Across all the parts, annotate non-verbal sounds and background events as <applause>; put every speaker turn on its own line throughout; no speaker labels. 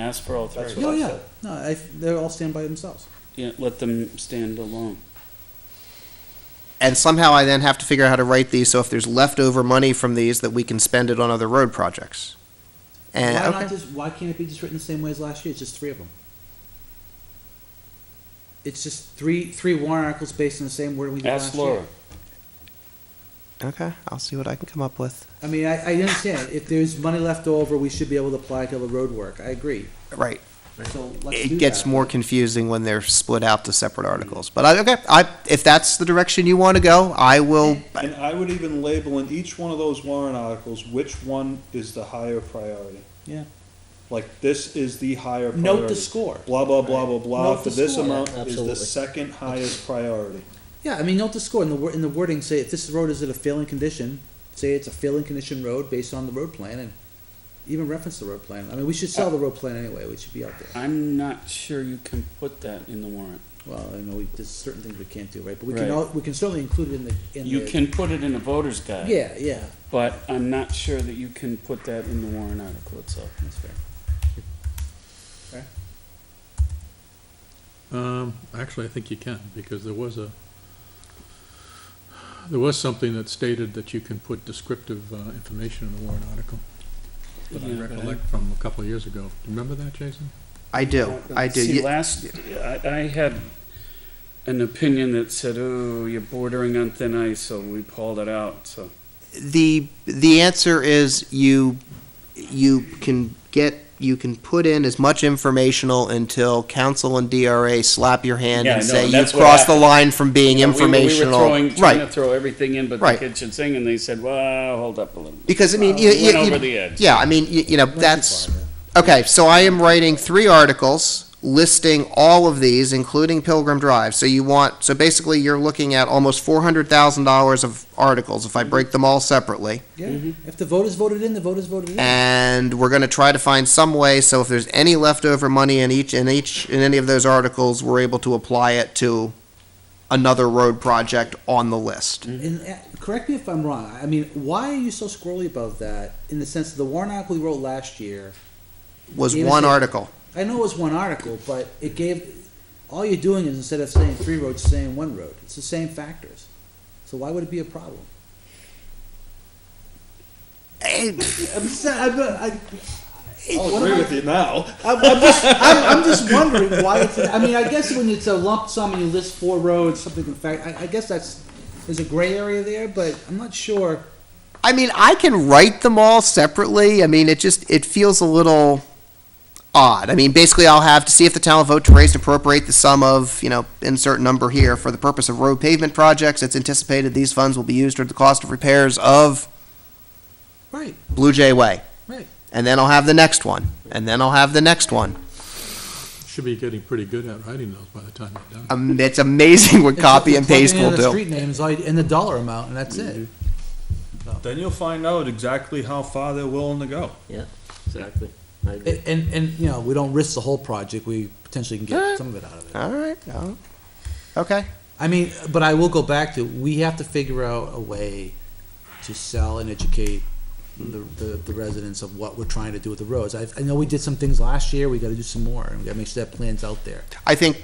Ask for all
That's
three.
what
Oh,
I
yeah,
said.
no, I, they all stand by themselves.
Yeah, let them stand alone.
And somehow I then have to figure out how to write these, so if there's leftover money from these, that we can spend it on other road projects. And,
Why
Uh, okay.
not just, why can't it be just written the same way as last year, it's just three of them? It's just three, three warrant articles based on the same word we did
Ask
last year.
Laura.
Okay, I'll see what I can come up with.
I mean, I, I understand, if there's money left over, we should be able to apply to the road work, I agree,
Right.
so let's do
It gets
that.
more confusing when they're split out to separate articles. But I, okay, I, if that's the direction you want to go, I will,
And I would even label in each one of those warrant articles, which one is the higher priority.
Yeah.
Like, this is the higher priority.
Note the score.
Blah, blah, blah, blah, blah,
Note
for
the
this
score.
amount
Yeah,
is the
absolutely.
second highest priority.
Yeah, I mean, note the score in the wor- in the wording. Say if this road is in a failing condition, say it's a failing condition road based on the road plan, and even reference the road plan. I mean, we should
Uh,
sell the road plan anyway. We should be out there.
I'm not sure you can put that in the warrant.
Well, I know we, there's certain things we can't do, right? But we
Right.
can all, we can certainly include it in the in
You
the,
can put it in a voter's guide.
Yeah, yeah,
But I'm not sure that you can put that in the warrant article itself.
that's fair.
Um, actually, I think you can, because there was a, there was something that stated that you can put descriptive, uh, information in the warrant article. That I
Yeah.
recollect from a couple of years ago. Do you remember that, Jason?
I do, I do.
See,
You-
last, I, I had an opinion that said, oh, you're bordering on thin ice, so we pulled it out, so.
the the answer is you you can get you can put in as much informational until council and DRA slap your hand
Yeah,
and
I know,
say
and
you
that's what
crossed the
happened.
line from being
You know, we were-
informational.
We were throwing, trying to
right.
throw everything in but the
Right.
kitchen sink, and they said, well, hold up a little.
Because I mean,
Well,
you,
we
you-
Uh, went
you-
over the edge.
yeah, I mean, you, you know, that's okay. So I am writing three articles listing all of these, including Pilgrim Drive. So you want so basically you're looking at almost four hundred thousand dollars of articles if I break them all separately.
Yeah.
Mm-hmm.
If the voters voted in, the voters voted in.
and we're going to try to find some way so if there's any leftover money in each in each in any of those articles we're able to apply it to another road project on the list
And uh, correct me if I'm wrong. I mean, why are you so squirrely about that? In the sense of the warrant article we wrote last year,
was
Yeah,
one
so-
article
I know it was one article, but it gave, all you're doing is instead of saying three roads, saying one road. It's the same factors. So why would it be a problem?
Eh,
I'm just, I'm, I, Oh,
I'll agree with you now.
I'm, I'm just, I'm, I'm just wondering why it's, I mean, I guess when it's a lump sum and you list four roads, something in fact, I, I guess that's, there's a gray area there, but I'm not sure.
i mean i can write them all separately i mean it just it feels a little odd i mean basically i'll have to see if the town will vote to raise and appropriate the sum of you know insert number here for the purpose of road pavement projects it's anticipated these funds will be used toward the cost of repairs of
Right,
blue jay way
right.
and then I'll have the next one, and then I'll have the next one.
Should be getting pretty good at writing those by the time you're done.
Um, it's amazing
<laughs>
what copy and paste will do.
Street names, all you- and the dollar amount, and that's it.
Then you'll find out exactly how far they're willing to go.
Yeah, exactly. I agree.
And, and- and, you know, we don't risk the whole project, we potentially can get some of it out of it.
All right. oh, Okay.
I mean, but I will go back to we have to figure out a way to sell and educate the, the, the residents of what we're trying to do with the roads. I, I know we did some things last year. We got to do some more, and we got to make sure that plan's out there.
I think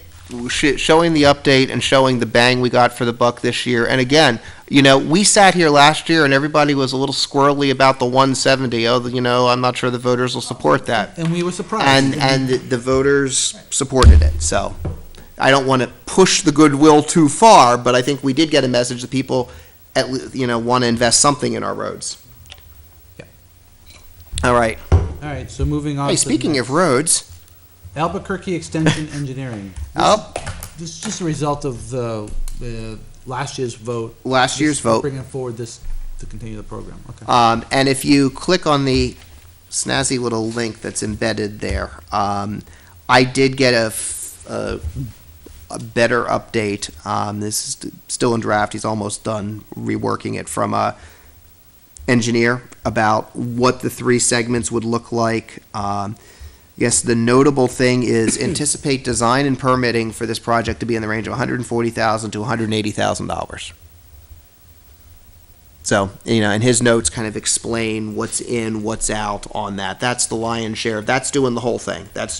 sh- showing the update and showing the bang we got for the buck this year. And again, you know, we sat here last year and everybody was a little squirrely about the 170. Oh, you know, I'm not sure the voters will support that.
And we were surprised.
and and the- the voters supported it. So I don't want to push the goodwill too far, but I think we did get a message that people at le- you know want to invest something in our roads.
Yeah.
All right.
all right. So moving on.
Hey,
to
speaking of roads,
Albuquerque Extension Engineering,
oh,
this is just a result of the, the last year's vote.
last year's
Just for
vote.
Bringing forward this to continue the program. Okay.
Um, and if you click on the snazzy little link that's embedded there, um, I did get a, f- a- a better update. Um, this is st- still in draft. He's almost done reworking it from a engineer about what the three segments would look like. Um, yes, the notable thing is <coughs> anticipate design and permitting for this project to be in the range of 140,000 to 180,000 dollars. So, you know, and his notes kind of explain what's in, what's out on that. That's the lion's share. That's doing the whole thing. That's